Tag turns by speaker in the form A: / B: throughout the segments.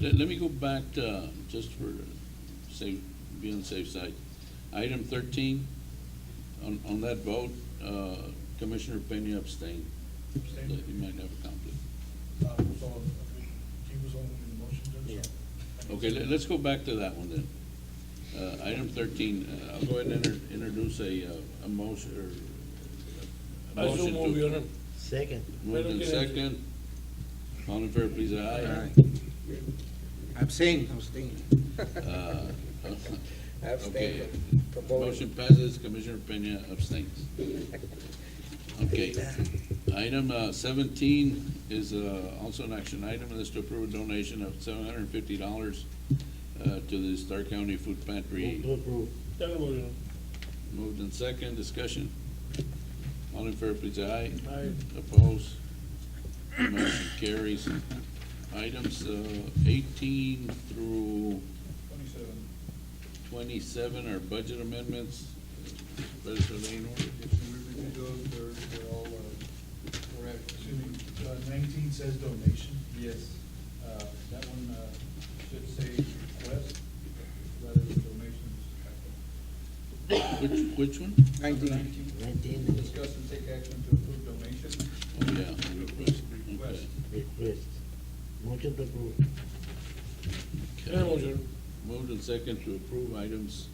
A: Let, let me go back to, um, just for safe, be on the safe side. Item thirteen, on, on that vote, uh, Commissioner Peña abstained.
B: Abstained.
A: He might have a conflict.
B: Uh, So he was on the motion, Judge? so-
A: Okay, let, us go back to that one then. Uh, item thirteen, uh, I'll go ahead and inter- introduce a, uh, a motion, or.
C: I
A: a
C: so
A: motion to-
C: move, Your Honor.
D: Second.
A: Moved in second. All in favor, please, aye.
E: Abstain, abstain.
A: Uh,
E: Abstain
A: Okay.
E: from voting.
A: Motion passes, Commissioner Peña abstains. Okay. Item uh, seventeen is uh, also an action item, and is to approve a donation of seven hundred and fifty dollars uh, to the Star County Food Pantry.
D: Move to approve.
C: Second move, Your Honor.
A: Moved in second, discussion. All in favor, please, aye.
C: Aye.
A: Opposed? Motion carries. Items uh, eighteen through
B: Twenty-seven.
A: twenty-seven are budget amendments. Better lay in order.
B: If you review those, they're, they're all uh, correct. Excuse me, uh, nineteen says donation. Yes. Uh, that one, uh, should say request rather than donations.
A: Which, which one?
E: Nineteen.
B: Nineteen,
D: Nineteen,
B: discuss and take action to approve donation.
A: Oh, yeah. request.
B: Request.
D: request. Motion to approve.
A: Okay.
C: Second move, Your Honor.
A: Moved and second to approve items,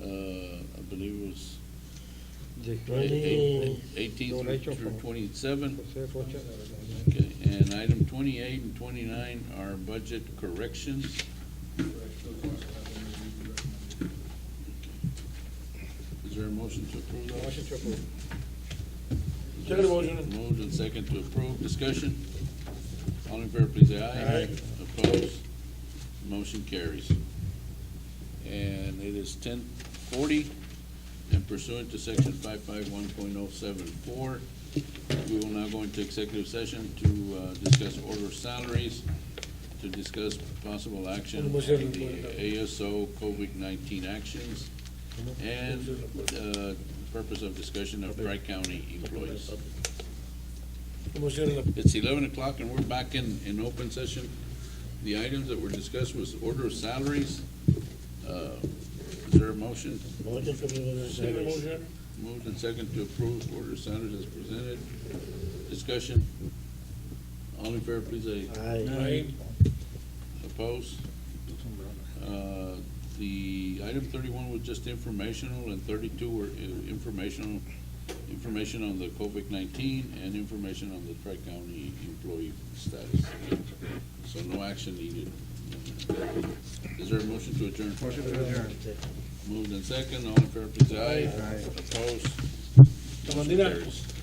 A: uh, I believe it was
D: The
A: eight-
D: twenty,
A: eighteen through- through twenty-seven.
E: Motion
A: Okay, and item twenty-eight and twenty-nine are budget corrections.
B: Correct, those are, uh, the recommended.
A: Is there a motion to approve those?
E: to approve.
C: Second move, Your Honor.
A: Moved and second to approve, discussion. All in favor, please say aye.
D: Aye.
A: Opposed? Motion carries. And it is ten forty, and pursuant to section five five one point oh seven four, we will now go into executive session to, uh, discuss order of salaries, to discuss possible action on the
C: Motion to approve.
A: ASO COVID nineteen actions, and, uh, purpose of discussion of Dry County employees.
C: Motion to approve.
A: It's eleven o'clock and we're back in, in open session. The items that were discussed was order of salaries. Uh, Is there a motion?
D: motion to approve.
C: Second move, Your Honor.
A: Moved and second to approve order of salaries as presented. Discussion. All in favor, please say
D: Aye.
C: Aye.
A: opposed. Uh, The item thirty-one was just informational and thirty-two were uh, informational, information on the COVID nineteen and information on the tri-county employee status. So no action needed. Is there a motion to adjourn?
E: Motion to adjourn.
A: Moved and second, all in favor, please say aye.
E: Aye.
A: Opposed?
C: Comandina.
A: Motion carries.